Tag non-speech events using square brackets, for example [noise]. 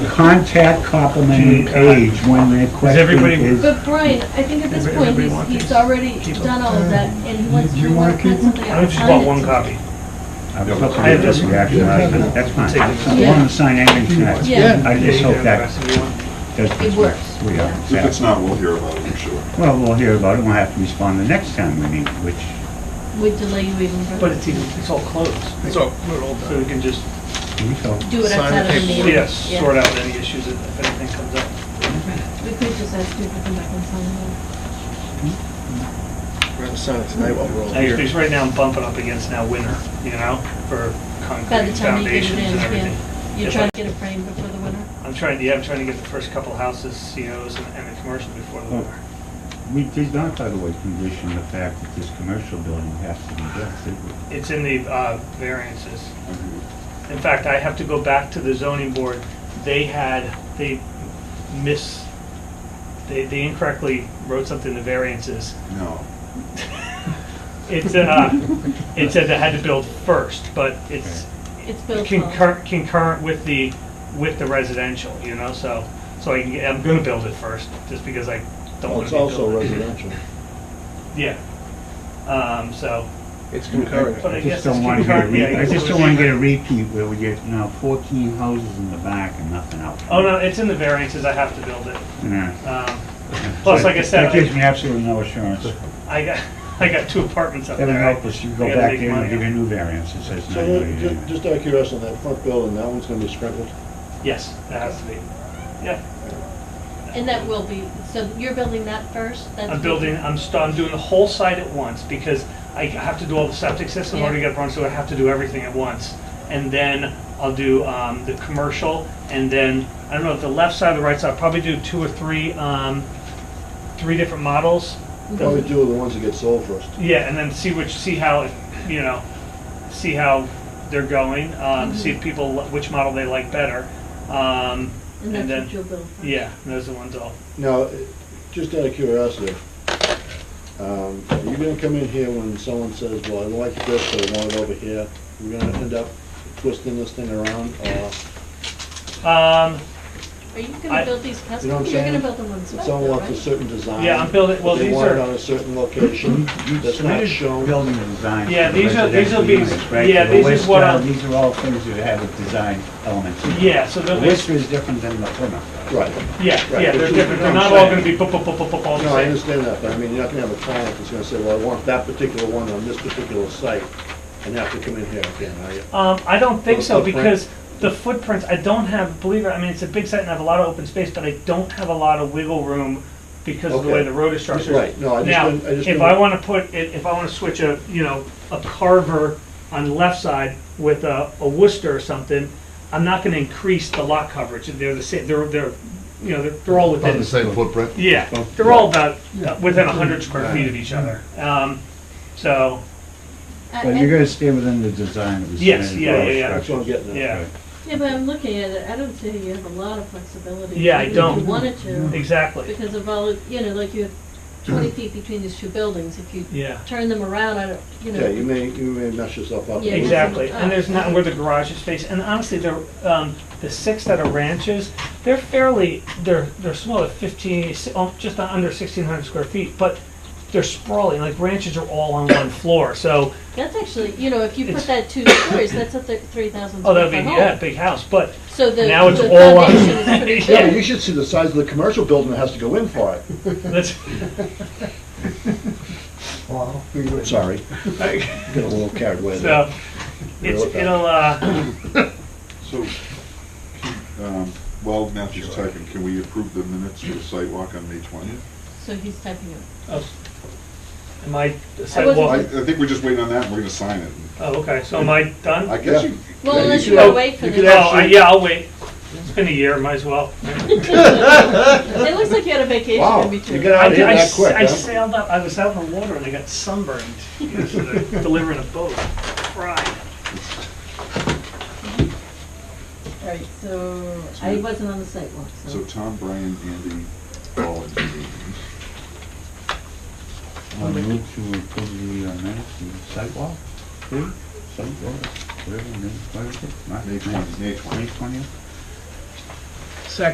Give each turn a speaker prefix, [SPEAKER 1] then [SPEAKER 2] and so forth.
[SPEAKER 1] contact complimenting page when that question
[SPEAKER 2] everybody-
[SPEAKER 1] is.
[SPEAKER 3] But Brian, I think at this point,
[SPEAKER 2] Everybody
[SPEAKER 3] he's,
[SPEAKER 2] want
[SPEAKER 3] he's
[SPEAKER 2] these?
[SPEAKER 3] already done all of that, and he wants,
[SPEAKER 4] Do you
[SPEAKER 3] we
[SPEAKER 4] wanna
[SPEAKER 3] want to print
[SPEAKER 4] keep them?
[SPEAKER 3] something.
[SPEAKER 2] I don't
[SPEAKER 3] out.
[SPEAKER 2] just bought one copy.
[SPEAKER 1] I'm looking
[SPEAKER 2] I
[SPEAKER 1] at
[SPEAKER 2] have
[SPEAKER 1] this
[SPEAKER 2] this one.
[SPEAKER 1] reaction, I was- that's fine. I don't want to sign anything tonight.
[SPEAKER 3] Yeah.
[SPEAKER 1] I just hope
[SPEAKER 2] Yeah,
[SPEAKER 1] that
[SPEAKER 2] that's the one.
[SPEAKER 1] does.
[SPEAKER 3] It works.
[SPEAKER 1] We are,
[SPEAKER 3] yeah.
[SPEAKER 4] If it's not, we'll hear about it, I'm sure.
[SPEAKER 1] well, we'll hear about it, we'll have to respond the next time we meet, which
[SPEAKER 3] Would delay you even
[SPEAKER 2] But
[SPEAKER 3] further.
[SPEAKER 2] it's even, it's all closed. It's all, we're all, so we can just,
[SPEAKER 1] we hope.
[SPEAKER 3] Do it
[SPEAKER 5] Sign
[SPEAKER 3] outside
[SPEAKER 5] the
[SPEAKER 3] of the
[SPEAKER 5] paperwork.
[SPEAKER 3] meeting.
[SPEAKER 2] yes,
[SPEAKER 3] Yeah.
[SPEAKER 2] sort out any issues if if anything comes up.
[SPEAKER 3] We could just ask you to come back and sign it.
[SPEAKER 5] We're gonna sign it tonight while we're all
[SPEAKER 2] Like,
[SPEAKER 5] here.
[SPEAKER 2] Because right now I'm bumping up against now winter, you know, for
[SPEAKER 3] By the
[SPEAKER 2] concrete
[SPEAKER 3] time you get it
[SPEAKER 2] foundations
[SPEAKER 3] in,
[SPEAKER 2] and everything.
[SPEAKER 3] yeah. You're
[SPEAKER 2] If
[SPEAKER 3] trying
[SPEAKER 2] I-
[SPEAKER 3] to get it framed before the winter?
[SPEAKER 2] I'm trying, yeah, I'm trying to get the first couple houses, COs and and a commercial before the
[SPEAKER 1] Well,
[SPEAKER 2] winter.
[SPEAKER 1] We did not, by the way, condition the fact that this commercial building has to be built. did we?
[SPEAKER 2] It's in the uh, variances. In fact, I have to go back to the zoning board. They had, they miss, they they incorrectly wrote something in the variances.
[SPEAKER 4] No.
[SPEAKER 2] It said, uh, it said they had to build first, but it's
[SPEAKER 3] It's built on.
[SPEAKER 2] concurrent, concurrent with the, with the residential, you know, so, so I, can get- I'm gonna build it first, just because I don't
[SPEAKER 5] Well,
[SPEAKER 2] want
[SPEAKER 5] It's
[SPEAKER 2] to build it.
[SPEAKER 5] also residential.
[SPEAKER 2] Yeah. Um, so,
[SPEAKER 5] It's
[SPEAKER 2] But
[SPEAKER 5] concurrent.
[SPEAKER 2] I
[SPEAKER 1] I
[SPEAKER 2] guess
[SPEAKER 1] just don't
[SPEAKER 2] it's
[SPEAKER 1] want to get a
[SPEAKER 2] concurrent, yeah,
[SPEAKER 1] re- I
[SPEAKER 2] it's
[SPEAKER 1] just
[SPEAKER 2] what
[SPEAKER 1] don't
[SPEAKER 2] we
[SPEAKER 1] want to
[SPEAKER 2] did.
[SPEAKER 1] get a repeat where we get, you know, 14 houses in the back and nothing else.
[SPEAKER 2] oh no, it's in the variances, I have to build it.
[SPEAKER 1] Yeah.
[SPEAKER 2] Um, Plus, like I said,
[SPEAKER 1] That
[SPEAKER 2] I-
[SPEAKER 1] gives me absolutely no assurance.
[SPEAKER 2] I got, [laughs] I got two apartments up
[SPEAKER 1] That'll
[SPEAKER 2] there.
[SPEAKER 1] help us, you
[SPEAKER 2] I
[SPEAKER 1] go
[SPEAKER 2] gotta
[SPEAKER 1] back
[SPEAKER 2] make
[SPEAKER 1] there and
[SPEAKER 2] money.
[SPEAKER 1] give a new variance that says
[SPEAKER 5] So,
[SPEAKER 1] nine
[SPEAKER 5] then, ju-
[SPEAKER 1] million.
[SPEAKER 5] just out of curiosity, that front building, that one's gonna be sprinkled?
[SPEAKER 2] Yes, that has to be, yeah.
[SPEAKER 3] And that will be, so you're building that first? That's
[SPEAKER 2] I'm building, I'm, st- I'm doing the whole site at once, because I have to do all the septic system, I already got burned, so I have to do everything at once. And then I'll do, um, the commercial, and then, I don't know, if the left side or the right side, I'll probably do two or three, um, three different models.
[SPEAKER 5] Probably two of the ones that get sold first.
[SPEAKER 2] Yeah, and then see which, see how, you know, see how they're going, um, see
[SPEAKER 3] Mm-hmm.
[SPEAKER 2] if people, li- which model they like better. Um,
[SPEAKER 3] And
[SPEAKER 2] and
[SPEAKER 3] that's what
[SPEAKER 2] then,
[SPEAKER 3] you'll build first?
[SPEAKER 2] yeah, those are the ones I'll,
[SPEAKER 5] Now, it- just out of curiosity, um, are you gonna come in here when someone says, well, I like this, but I want it over here? You're gonna end up twisting this thing around, or
[SPEAKER 2] um,
[SPEAKER 3] Are you
[SPEAKER 2] I-
[SPEAKER 3] gonna build these custom?
[SPEAKER 5] You know what I'm
[SPEAKER 3] You're
[SPEAKER 5] saying?
[SPEAKER 3] gonna build them on spec,
[SPEAKER 5] someone
[SPEAKER 3] though,
[SPEAKER 5] wants a
[SPEAKER 3] right?
[SPEAKER 5] certain design?
[SPEAKER 2] Yeah, I'm building- well,
[SPEAKER 5] but They
[SPEAKER 2] these
[SPEAKER 5] want it
[SPEAKER 2] are-
[SPEAKER 5] on a certain location
[SPEAKER 1] You
[SPEAKER 5] that's not
[SPEAKER 1] submitted
[SPEAKER 5] shown.
[SPEAKER 1] building design.
[SPEAKER 2] Yeah,
[SPEAKER 1] for
[SPEAKER 2] these are- these will
[SPEAKER 1] residential
[SPEAKER 2] be-
[SPEAKER 1] units, right?
[SPEAKER 2] yeah,
[SPEAKER 1] The
[SPEAKER 2] these is
[SPEAKER 1] list,
[SPEAKER 2] what
[SPEAKER 1] uh,
[SPEAKER 2] I'll-
[SPEAKER 1] These are all things that have a design element to them.
[SPEAKER 2] yeah, so
[SPEAKER 1] The
[SPEAKER 2] they'll be.
[SPEAKER 1] list is different than the Plymouth.
[SPEAKER 5] Right.
[SPEAKER 2] Yeah,
[SPEAKER 5] Right,
[SPEAKER 2] yeah,
[SPEAKER 5] but
[SPEAKER 2] they're different,
[SPEAKER 5] you- you know
[SPEAKER 2] they're
[SPEAKER 5] what
[SPEAKER 2] not
[SPEAKER 5] I'm
[SPEAKER 2] all
[SPEAKER 5] saying.
[SPEAKER 2] gonna be pop, pop, pop, pop, pop, all
[SPEAKER 5] No, I
[SPEAKER 2] the same.
[SPEAKER 5] understand that, but I mean, you're not gonna have a client that's gonna say, well, I want that particular one on this particular site, and have to come in here again, are you?
[SPEAKER 2] Um, I don't think
[SPEAKER 5] The
[SPEAKER 2] so,
[SPEAKER 5] footprint.
[SPEAKER 2] because the footprints, I don't have, believe it, I mean, it's a big site and I have a lot of open space, but I don't have a lot of wiggle room because of the way
[SPEAKER 5] Okay.
[SPEAKER 2] the road is structured.
[SPEAKER 5] Right, no, I just
[SPEAKER 2] Now,
[SPEAKER 5] didn't- I just
[SPEAKER 2] if
[SPEAKER 5] didn't-
[SPEAKER 2] I wanna put, if if I wanna switch a, you know, a carver on the left side with a, a Worcester or something, I'm not gonna increase the lot coverage, they're the same, they're, they're, you know, they're, they're all within.
[SPEAKER 6] About the same footprint?
[SPEAKER 2] Yeah,
[SPEAKER 5] Oh,
[SPEAKER 2] they're all about, uh, within a hundred square feet of each other, um, so,
[SPEAKER 3] I-
[SPEAKER 1] But
[SPEAKER 3] I-
[SPEAKER 1] you're gonna stay within the design that was
[SPEAKER 2] Yes,
[SPEAKER 1] submitted.
[SPEAKER 2] yeah,
[SPEAKER 1] for our
[SPEAKER 2] yeah, yeah.
[SPEAKER 5] That's
[SPEAKER 1] structure.
[SPEAKER 5] what I'm getting at.
[SPEAKER 2] yeah.
[SPEAKER 3] Yeah, but I'm looking at it, I don't see you have a lot of flexibility.
[SPEAKER 2] Yeah, I
[SPEAKER 3] even If
[SPEAKER 2] don't.
[SPEAKER 3] you wanted to,
[SPEAKER 2] Exactly.
[SPEAKER 3] because of all, of- you know, like you have twenty feet between these two buildings, if you
[SPEAKER 2] Yeah.
[SPEAKER 3] turn them around, I don't, you
[SPEAKER 5] Yeah, you
[SPEAKER 3] know,
[SPEAKER 5] may, you may mess yourself up.
[SPEAKER 3] Yeah,
[SPEAKER 2] Exactly.
[SPEAKER 3] that's-
[SPEAKER 2] And there's not where the garage is facing. And honestly, the um, the six that are ranches, they're fairly they're they're small, at 15, si- oh, just on under 1,600 square feet, but they're sprawling. Like ranches are all on one floor, so
[SPEAKER 3] that's actually, you know, if you put
[SPEAKER 2] It's-
[SPEAKER 3] that two stories, that's a three thousand
[SPEAKER 2] oh,
[SPEAKER 3] square
[SPEAKER 2] that'd
[SPEAKER 3] foot
[SPEAKER 2] be yeah,
[SPEAKER 3] home.
[SPEAKER 2] big house. But
[SPEAKER 3] So the,
[SPEAKER 2] now it's
[SPEAKER 3] the
[SPEAKER 2] all on-
[SPEAKER 3] foundation is
[SPEAKER 2] [laughs]
[SPEAKER 3] pretty
[SPEAKER 5] Yeah, but
[SPEAKER 3] big.
[SPEAKER 5] you should see the size of the commercial building that has to go in for it.
[SPEAKER 2] that's
[SPEAKER 5] Sorry. Got a little carried away
[SPEAKER 2] [laughs]
[SPEAKER 5] there.
[SPEAKER 2] so it's it'll uh,
[SPEAKER 4] So, can- um, while Matthew's typing, can we approve the minutes for the site walk on May 20th?
[SPEAKER 3] So he's typing it.
[SPEAKER 2] oh, am I the
[SPEAKER 4] Well, I,
[SPEAKER 2] sidewalk?
[SPEAKER 4] I think we're just waiting on that, and we're gonna sign it.
[SPEAKER 2] Oh, okay. So am I done?
[SPEAKER 4] I guess you.
[SPEAKER 3] Well,
[SPEAKER 4] yeah,
[SPEAKER 3] unless
[SPEAKER 4] should-
[SPEAKER 3] you wanna wait for
[SPEAKER 5] you
[SPEAKER 2] oh,
[SPEAKER 5] could
[SPEAKER 3] the,
[SPEAKER 5] have-
[SPEAKER 2] I, yeah, I'll wait. It's been a year. Might as well.
[SPEAKER 3] it looks like you had a vacation
[SPEAKER 5] Wow,
[SPEAKER 3] in
[SPEAKER 5] you
[SPEAKER 3] between.
[SPEAKER 5] got out
[SPEAKER 2] I,
[SPEAKER 5] of here
[SPEAKER 2] I
[SPEAKER 5] that
[SPEAKER 2] s-
[SPEAKER 5] quick,
[SPEAKER 2] I
[SPEAKER 5] huh?
[SPEAKER 2] sailed up. I was out in the water and I got sunburned [laughs] yesterday, delivering a boat. Fried.
[SPEAKER 3] Alright, so I wasn't on the sidewalk,
[SPEAKER 4] So
[SPEAKER 3] so.
[SPEAKER 4] Tom, Brian, Andy, all in the meeting.
[SPEAKER 1] I move to approve the uh, minutes, the sidewalk, please, sidewalk, whatever, whatever, whatever.
[SPEAKER 4] May 20th, May 20th.
[SPEAKER 1] twentieth?